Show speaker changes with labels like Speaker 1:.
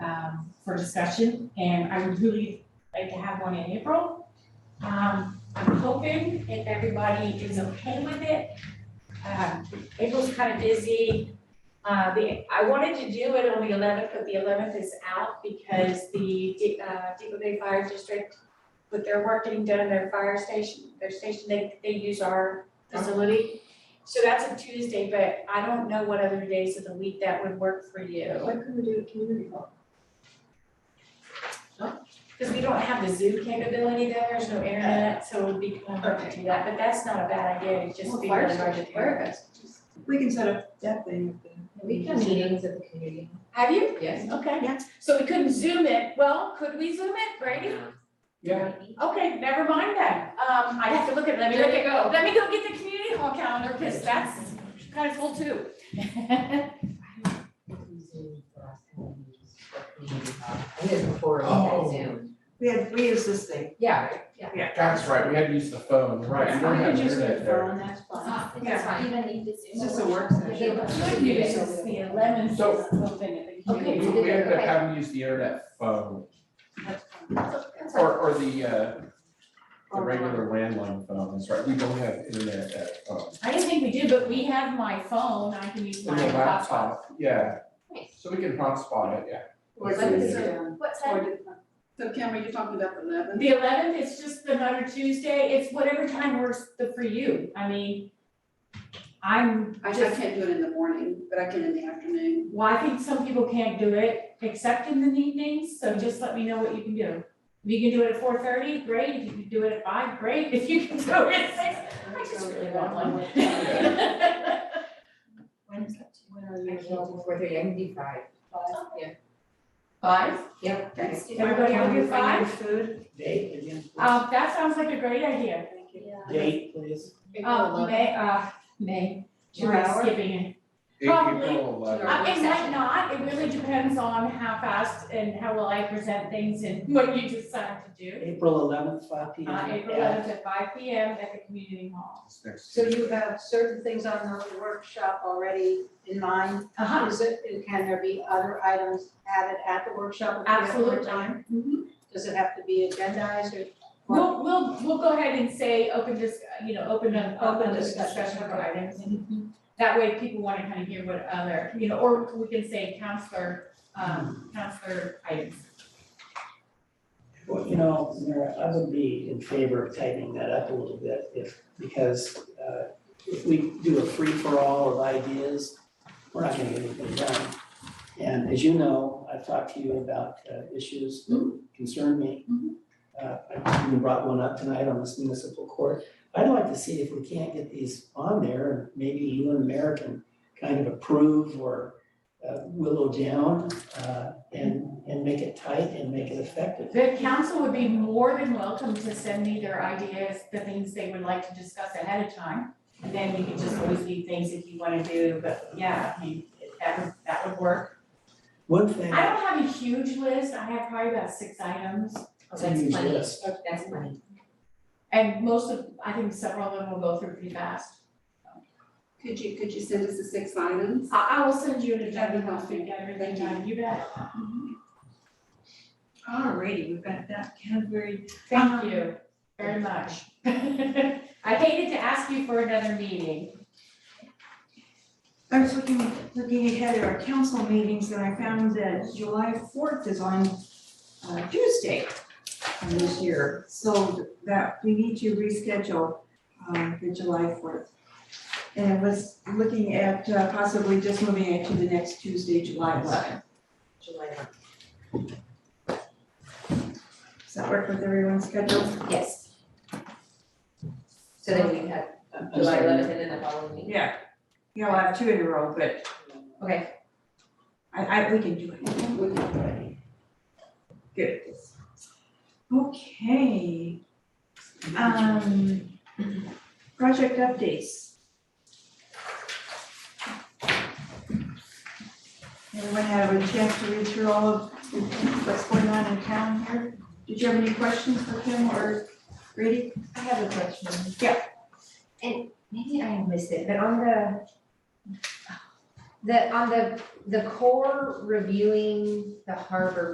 Speaker 1: um, for discussion, and I would really like to have one in April. Um, I'm hoping if everybody is okay with it. Um, April's kind of busy. Uh, the, I wanted to do it on the eleventh, but the eleventh is out because the, D- uh, Depot Bay Fire District, with their work getting done in their fire station, their station, they, they use our facility. So that's a Tuesday, but I don't know what other days of the week that would work for you.
Speaker 2: Why couldn't we do a community hall?
Speaker 1: Because we don't have the Zoom capability there, there's no internet, so it would be kind of hard to do that, but that's not a bad idea, it'd just
Speaker 2: Well,
Speaker 1: be
Speaker 2: fire
Speaker 1: really hard to
Speaker 2: station,
Speaker 1: do.
Speaker 2: fire station. We can set up that thing up there.
Speaker 3: We have meetings at the community.
Speaker 1: Have you?
Speaker 3: Yes.
Speaker 1: Okay.
Speaker 2: Yeah.
Speaker 1: So we couldn't Zoom it, well, could we Zoom it, Brady? Okay, never mind that, um, I have to look at, let me look at,
Speaker 3: go.
Speaker 1: let me go get the community hall calendar, because that's kind of full too.
Speaker 3: I did before,
Speaker 4: Oh.
Speaker 3: on Zoom.
Speaker 2: We had, we use this thing.
Speaker 3: Yeah, right, yeah.
Speaker 4: That's right, we had to use the phone, right, we don't have internet there.
Speaker 2: that's
Speaker 3: It's not,
Speaker 1: Yeah.
Speaker 3: it's fine.
Speaker 2: It's just a work session.
Speaker 3: Good news is the
Speaker 1: eleventh
Speaker 4: So- is
Speaker 1: open at the
Speaker 3: community
Speaker 4: We we ended up having to use the internet phone,
Speaker 3: That's fine.
Speaker 4: or, or the, uh, the regular landline phone, that's right, we don't have internet at home.
Speaker 1: I didn't think we did, but we have my phone, I can use
Speaker 4: And the laptop, yeah,
Speaker 3: Nice.
Speaker 4: so we can hotspot it, yeah.
Speaker 2: Or
Speaker 3: Like
Speaker 2: do
Speaker 3: this.
Speaker 2: sit down.
Speaker 3: What
Speaker 2: Or
Speaker 3: time?
Speaker 2: do- So Cameron, you're talking about the eleven?
Speaker 1: The eleventh, it's just another Tuesday, it's whatever time works the- for you, I mean, I'm
Speaker 2: I I
Speaker 1: just,
Speaker 2: can't do it in the morning, but I can in the afternoon.
Speaker 1: well, I think some people can't do it except in the evenings, so just let me know what you can do. If you can do it at four thirty, great, if you can do it at five, great, if you can do it at six, I just really want one.
Speaker 3: When is that?
Speaker 2: When are
Speaker 3: I can't do four thirty, I can do five.
Speaker 2: Five.
Speaker 3: Yeah.
Speaker 1: Five?
Speaker 3: Yep.
Speaker 2: Thanks.
Speaker 1: Everybody on your five?
Speaker 2: Food.
Speaker 1: Uh, that sounds like a great idea.
Speaker 5: Date, please.
Speaker 3: Oh,
Speaker 1: Uh, May, uh, May,
Speaker 3: Two
Speaker 1: we're
Speaker 3: hours?
Speaker 1: skipping it.
Speaker 4: April
Speaker 1: Probably.
Speaker 4: 11th.
Speaker 3: Or
Speaker 1: Uh, It might
Speaker 3: session.
Speaker 1: not, it really depends on how fast and how well I present things and what you decide to do.
Speaker 5: April eleventh, five P M.
Speaker 1: Uh, April eleventh at five P M at the community hall.
Speaker 4: It's next
Speaker 6: So
Speaker 4: Tuesday.
Speaker 6: you have certain things on the workshop already in mind?
Speaker 1: Uh-huh.
Speaker 6: Is it, and can there be other items added at the workshop? if we have more
Speaker 1: Absolute
Speaker 6: time?
Speaker 1: time.
Speaker 6: Does it have to be agendized or?
Speaker 1: Mm-hmm. We'll, we'll, we'll go ahead and say open dis, you know, open a, open
Speaker 6: Open discussion.
Speaker 1: discussion of items. Mm-hmm. That way people wanna kind of hear what other, you know, or we can say counselor, um, counselor items.
Speaker 5: Well, you know, Mara, I would be in favor of tightening that up a little bit if, because uh, if we do a free-for-all of ideas, we're not gonna get anything done. And as you know, I've talked to you about uh, issues that concern me. Uh, I even brought one up tonight on this municipal court. I'd like to see if we can't get these on there, and maybe you and the mayor can kind of approve or uh, willow down uh, and, and make it tight and make it effective.
Speaker 1: The council would be more than welcome to send me their ideas, the things they would like to discuss ahead of time. And then we could just always leave things if you wanna do, but yeah, I mean, that would, that would work.
Speaker 5: One
Speaker 1: I
Speaker 5: thing,
Speaker 1: don't have a huge list, I have probably about six items.
Speaker 3: Oh,
Speaker 5: to use
Speaker 3: that's funny.
Speaker 5: this,
Speaker 3: That's funny.
Speaker 1: And most of, I think several of them will go through pretty fast.
Speaker 2: Could you, could you send us the six items?
Speaker 1: I, I will send you an
Speaker 2: That'd be
Speaker 1: agenda once
Speaker 2: helpful.
Speaker 1: we get everything
Speaker 2: Thank you.
Speaker 1: done, you bet.
Speaker 2: Alrighty, we've got that Canterbury.
Speaker 1: Thank you very much. I hated to ask you for another meeting.
Speaker 7: I was looking, looking ahead at our council meetings and I found that July fourth is on uh, Tuesday of this year. So that, we need to reschedule um, the July fourth. And I was looking at uh, possibly just moving it to the next Tuesday, July eleventh.
Speaker 3: July one.
Speaker 7: Does that work with everyone's schedule?
Speaker 3: Yes. So then we have
Speaker 5: I'm
Speaker 3: July
Speaker 5: sorry.
Speaker 3: eleventh and then the following week.
Speaker 7: Yeah. Yeah, we'll have two in a row, but
Speaker 3: Okay,
Speaker 7: I, I, we can do it. Good. Okay. Um, project updates. Everyone have a chance to read through all of what's going on in town here? Did you have any questions for Kim or Grady?
Speaker 3: I have a question.
Speaker 7: Yeah.
Speaker 3: And maybe I missed it, but on the the, on the, the core reviewing the harbor